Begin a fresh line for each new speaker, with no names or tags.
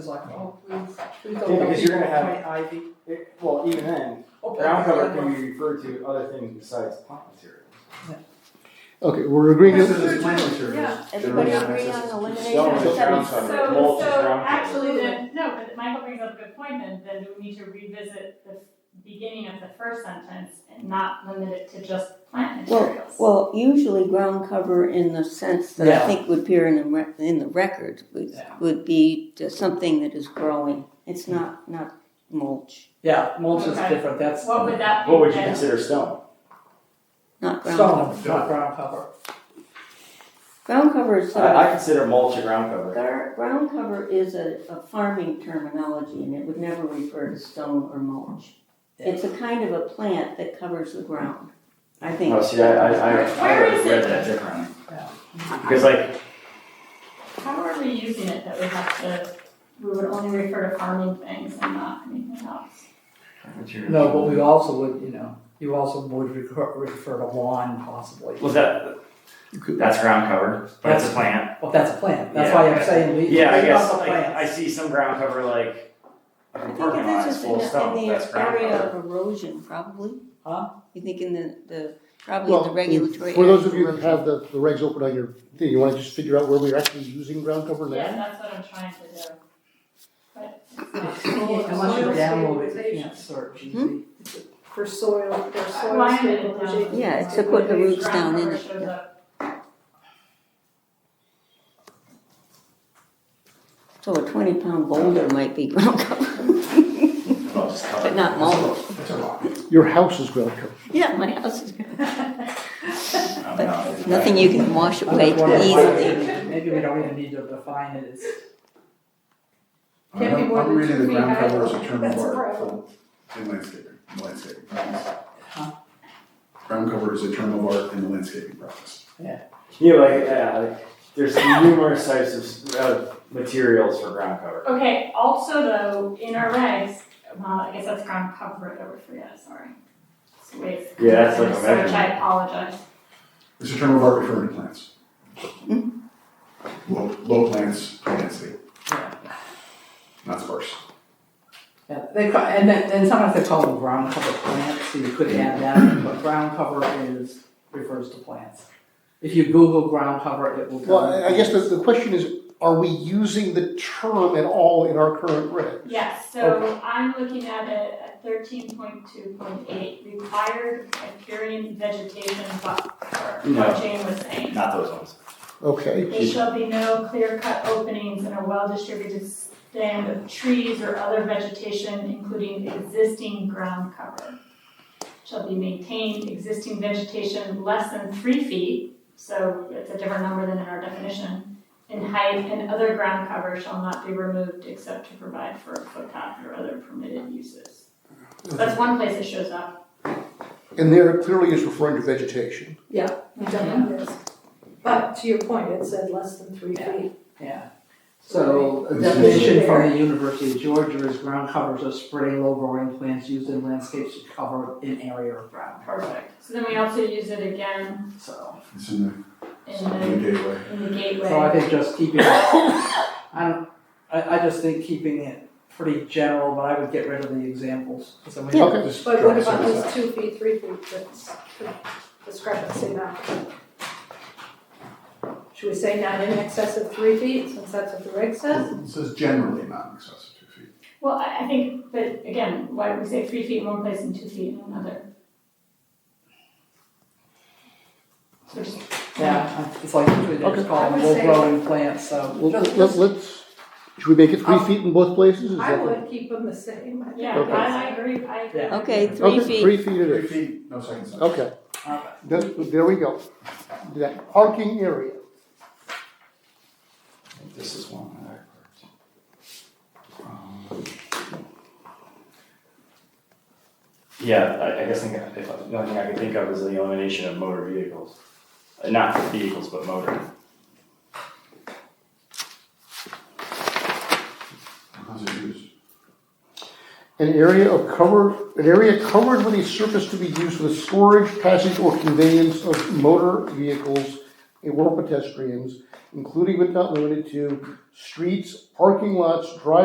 It's like, oh, please, please
Yeah,
don't let
because you're
people
gonna have-
plant ivy.
It, well, even then,
Oh,
ground
plant ivy.
cover can be referred to other things besides plant materials.
Okay, we're agreeing
This
to,
is
Yeah.
plant materials.
Yeah.
Everybody
Generally,
agree
access
on
to
elimination
stone
of
is ground
setbacks?
cover, mulch
So,
is
so
ground cover.
actually then, no, but Michael brings up a good point then, then do we need to revisit the beginning of the first sentence and not limit it to just plant
Well,
materials?
Well, usually ground cover in the sense that
Yeah.
I think would appear in the, re- in the record would,
Yeah.
would be just something that is growing. It's not, not mulch,
Yeah, mulch is
Okay.
different, that's.
What would that be?
What would you
then?
consider stone?
not ground cover.
Stone, not ground cover.
Ground cover is sort
I, I
of,
consider mulch a ground cover.
gar- ground cover is a, a farming terminology and it would never refer to stone or mulch.
Yeah.
It's a kind of a plant that covers the ground, I think.
Oh, see, I, I, I, I
Where is
read
it?
that differently.
Yeah.
Because like,
How are we using it that we have to, we would only refer to farming things and not anything else?
No, but we also would, you know, you also would refer, refer to lawn possibly.
was that, that's ground cover, but it's a plant.
Well, that's a plant, that's why I'm saying we,
Yeah, I
leave
guess,
out the
I, I
plants.
see some ground cover like, a
I think
parking lot is
if
full of
it's just in
stone,
the,
that's
in the
ground
area
cover.
of erosion, probably.
Huh?
You think in the, the, probably in
well,
the regulatory.
for those of
area
you that
erosion.
have the, the regs open on your thing, you wanna just figure out where we're actually using ground cover
Yeah,
now?
that's what I'm trying to do. But it's not.
Yeah, Unless you
Soil
download it, you
stabilization.
can't search.
Hmm?
For soil, for soil
Why did it
stabilization.
down?
Yeah, it's to put the roots down in
Ground
it,
cover shows
yeah.
up.
So a twenty pound boulder might be ground cover,
Well, just cover.
but not mulch.
Your house is ground cover.
Yeah, my house is,
I'm
but
not-
it's nothing you can wash
I'm
away
just wondering why we
easily.
didn't- Maybe we don't even need to define it, it's,
Can't be
I'm-
more
I'm
than
reading
two
the
feet
ground
high.
cover as a term of
That's a
art
problem.
for- in landscaping, landscaping process.
Huh?
Ground cover is a term of art in the landscaping process.
Yeah, like, yeah, like, there's numerous types of, uh, materials for ground cover.
Okay, also though, in our regs, well, I guess that's ground cover that we're free of, sorry. It's waste.
Yeah, that's like a
Search,
measurement.
I apologize.
It's a term of art referring to plants. Low, low plants, high density,
yeah,
not sparse.
yeah, they call, and then, and sometimes they call them ground cover plants, so you could add that, but ground cover is, refers to plants. If you Google ground cover, it will come.
Well, I- I guess the, the question is, are we using the term at all in our current regs?
Yes, so I'm looking at it at thirteen point two point eight, required riparian vegetation buffer,
No.
what Jane was saying.
Not those ones.
Okay,
There shall be no clear-cut openings and a well-distributed stand of trees or other vegetation, including existing ground cover. Shall be maintained existing vegetation less than three feet, so it's a different number than in our definition, in height, and other ground cover shall not be removed except to provide for a footpath or other permitted uses. That's one place it shows up.
and there it clearly is referring to vegetation.
Definitely is. But to your point, it said less than three
Yeah.
feet.
Yeah. So a
This is-
definition from the University of Georgia is ground covers of spreading low growing plants used in landscapes to cover an area of ground.
Perfect. So then we also use it again
So,
It's in
in
the, in
the,
the gateway.
in the gateway.
so I think just keeping, it- I don't, I, I just think keeping it pretty general, but I would get rid of the examples. So we-
Yeah, okay.
Just
But
drop
what about
some
this
aside.
two feet, three feet that's discrepancy now? Should we say not in excess of three feet, since that's what the reg says?
It says generally not in excess of two feet.
Well, I, I think, but again, why would we say three feet in one place and two feet in another? So just,
Yeah, it's like usually they
Okay.
just call
I
them
would
low
say-
growing plants, so.
Well, let, let's, should we make it three
Oh.
feet in both places? Is
I
that-
would keep them the same. I think
yeah,
Okay.
that's-
I, I agree, I agree.
Yeah.
Okay, three
Okay,
feet.
three feet it
Three
is.
feet, no second sentence.
Okay,
Okay.
That- there we go. That parking area.
This is one that I Um, Yeah, I, I guess think if, the only thing I can think of is the elimination of motor vehicles. Uh, Not vehicles, but motor.
How's it used?
An area of cover, an area covered with a surface to be used for the storage, passage, or conveyance of motor vehicles or pedestrians, including but not limited to streets, parking lots, driveways,